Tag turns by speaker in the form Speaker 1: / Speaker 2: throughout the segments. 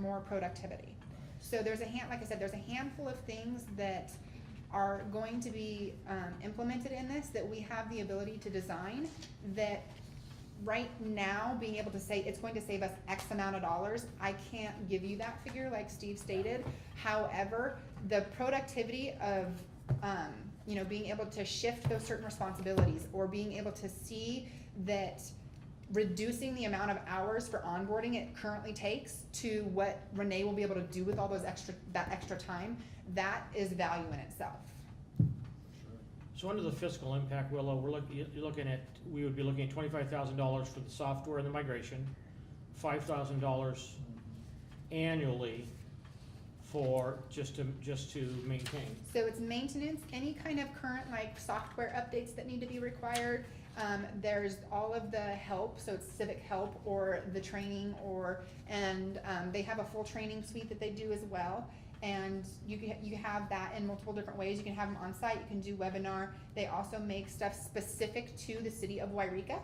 Speaker 1: more productivity. So there's a hand, like I said, there's a handful of things that are going to be, um, implemented in this that we have the ability to design that right now, being able to say it's going to save us X amount of dollars, I can't give you that figure like Steve stated. However, the productivity of, um, you know, being able to shift those certain responsibilities or being able to see that reducing the amount of hours for onboarding it currently takes to what Renee will be able to do with all those extra, that extra time, that is value in itself.
Speaker 2: So under the fiscal impact, Willow, we're looking, you're looking at, we would be looking at twenty-five thousand dollars for the software and the migration, five thousand dollars annually for, just to, just to maintain.
Speaker 1: So it's maintenance, any kind of current like software updates that need to be required. Um, there's all of the help, so it's civic help or the training or, and, um, they have a full training suite that they do as well. And you can, you have that in multiple different ways. You can have them on site, you can do webinar. They also make stuff specific to the city of Wairika.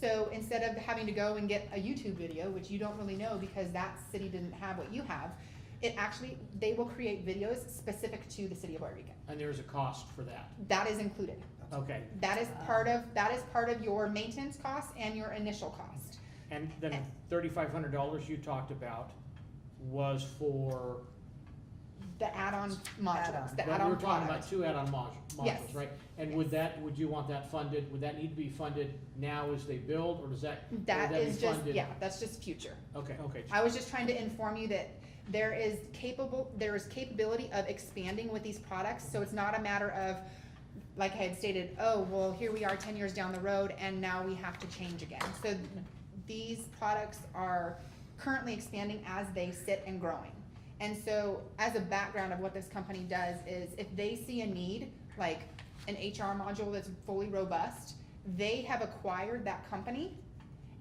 Speaker 1: So instead of having to go and get a YouTube video, which you don't really know because that city didn't have what you have, it actually, they will create videos specific to the city of Wairika.
Speaker 2: And there is a cost for that.
Speaker 1: That is included.
Speaker 2: Okay,
Speaker 1: That is part of, that is part of your maintenance cost and your initial cost.
Speaker 2: and then thirty-five hundred dollars you talked about was for,
Speaker 1: The add-on modules,
Speaker 3: Add-on.
Speaker 1: the
Speaker 2: but we
Speaker 1: add-on
Speaker 2: were talking about
Speaker 1: product.
Speaker 2: two add-on modules, modules,
Speaker 1: Yes.
Speaker 2: right? And would that, would you want that funded, would that need to be funded now as they build, or does that, would that
Speaker 1: That
Speaker 2: be
Speaker 1: is
Speaker 2: funded?
Speaker 1: just, yeah, that's just future.
Speaker 2: Okay, okay,
Speaker 1: I was just trying to inform you that there is capable, there is capability of expanding with these products, so it's not a matter of, like I had stated, oh, well, here we are ten years down the road and now we have to change again. So these products are currently expanding as they sit and growing. And so as a background of what this company does is if they see a need, like an HR module that's fully robust, they have acquired that company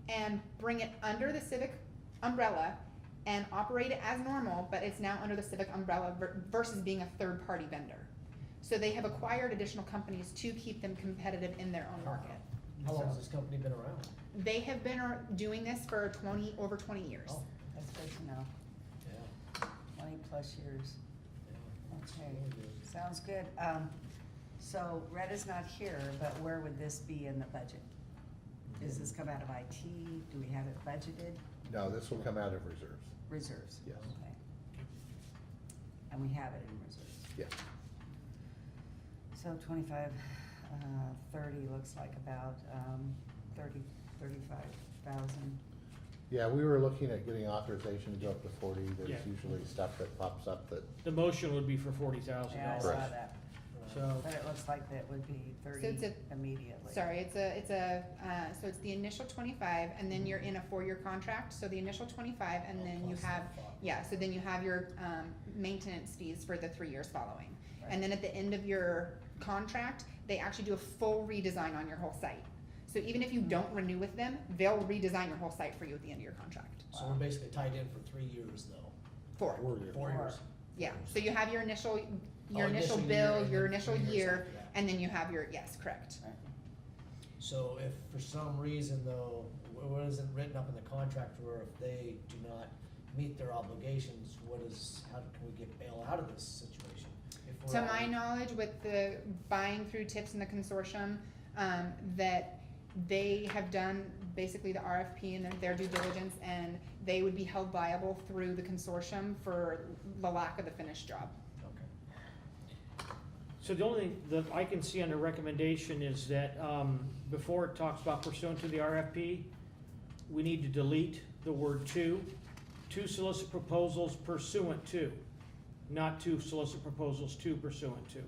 Speaker 1: and bring it under the civic umbrella and operate it as normal, but it's now under the civic umbrella ver- versus being a third-party vendor. So they have acquired additional companies to keep them competitive in their own market.
Speaker 4: How long has this company been around?
Speaker 1: They have been ar- doing this for twenty, over twenty years.
Speaker 4: Oh.
Speaker 3: That's good to know,
Speaker 4: Yeah.
Speaker 3: twenty plus years, okay,
Speaker 4: yeah.
Speaker 3: sounds good. Um, so Retta's not here, but where would this be in the budget? Does this come out of IT, do we have it budgeted,
Speaker 5: No, this will come out of reserves,
Speaker 3: reserves?
Speaker 5: Yes.
Speaker 3: Okay. And we have it in reserves,
Speaker 5: yes.
Speaker 3: so twenty-five, uh, thirty looks like about, um, thirty, thirty-five thousand.
Speaker 5: Yeah, we were looking at getting authorization to go up to forty,
Speaker 2: Yeah.
Speaker 5: there's usually stuff that pops up that,
Speaker 2: the motion would be for forty thousand
Speaker 3: Yeah, I
Speaker 2: dollars.
Speaker 3: saw
Speaker 5: Correct.
Speaker 3: that,
Speaker 2: So,
Speaker 3: but it looks like that would be
Speaker 1: So
Speaker 3: thirty
Speaker 1: it's a-
Speaker 3: immediately.
Speaker 1: Sorry, it's a, it's a, uh, so it's the initial twenty-five, and then you're in a four-year contract, so the initial twenty-five,
Speaker 4: Oh,
Speaker 1: and then you have, yeah, so then you have your, um, maintenance fees for the three years following. And then at the end of your contract, they actually do a full redesign on your whole site. So even if you don't renew with them, they'll redesign your whole site for you at the end of your contract.
Speaker 4: So we're basically tied in for three years though.
Speaker 1: Four,
Speaker 4: Four years.
Speaker 1: yeah, so you have your initial, your
Speaker 4: Oh,
Speaker 1: initial
Speaker 4: year
Speaker 1: bill,
Speaker 4: and
Speaker 1: your
Speaker 4: then
Speaker 1: initial
Speaker 4: three years
Speaker 1: year,
Speaker 4: after that.
Speaker 1: and then you have your, yes, correct.
Speaker 4: So if for some reason though, what isn't written up in the contract where if they do not meet their obligations, what is, how can we get bail out of this situation? If we're
Speaker 1: To my
Speaker 4: already-
Speaker 1: knowledge, with the buying through tips in the consortium, um, that they have done basically the RFP and their due diligence, and they would be held liable through the consortium for the lack of the finished job.
Speaker 4: Okay.
Speaker 2: so the only thing that I can see under recommendation is that, um, before it talks about pursuant to the RFP, we need to delete the word to, to solicit proposals pursuant to, not to solicit proposals to pursuant to.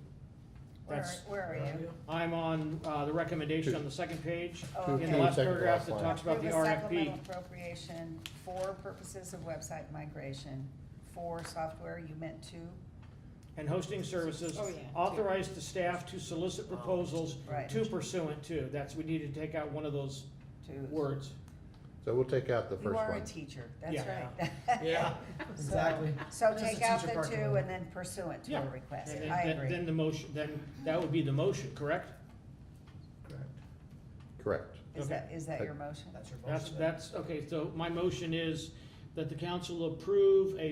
Speaker 3: Where,
Speaker 2: That's-
Speaker 3: where are you?
Speaker 2: I'm on, uh, the recommendation on the second page,
Speaker 3: Oh,
Speaker 5: Two-
Speaker 3: okay.
Speaker 2: in the last
Speaker 5: Second to
Speaker 2: paragraph
Speaker 5: last
Speaker 2: that
Speaker 5: line.
Speaker 2: talks about the
Speaker 3: Approve a
Speaker 2: RFP.
Speaker 3: supplemental appropriation for purposes of website migration, for software, you meant to,
Speaker 2: And hosting services,
Speaker 1: Oh, yeah.
Speaker 2: authorize the staff to solicit
Speaker 4: Oh,
Speaker 2: proposals
Speaker 3: right,
Speaker 2: to pursuant to. That's, we need to take out one of those
Speaker 3: to.
Speaker 2: words.
Speaker 5: so we'll take out the
Speaker 3: You
Speaker 5: first
Speaker 3: are a
Speaker 5: one.
Speaker 3: teacher, that's
Speaker 2: Yeah.
Speaker 3: right.
Speaker 4: Yeah, exactly.
Speaker 3: So
Speaker 4: There's
Speaker 3: take
Speaker 4: the
Speaker 3: out
Speaker 4: teacher part
Speaker 3: the
Speaker 4: coming
Speaker 3: two
Speaker 4: in.
Speaker 3: and then pursuant to
Speaker 2: Yeah.
Speaker 3: a request,
Speaker 2: And then-
Speaker 3: I
Speaker 2: then-
Speaker 3: agree.
Speaker 2: Then the motion, then, that would be the motion, correct?
Speaker 4: Correct.
Speaker 5: Correct.
Speaker 3: Is
Speaker 2: okay.
Speaker 3: that, is that your motion?
Speaker 4: That's your motion.
Speaker 2: That's,
Speaker 4: then.
Speaker 2: that's, okay, so my motion is that the council approve a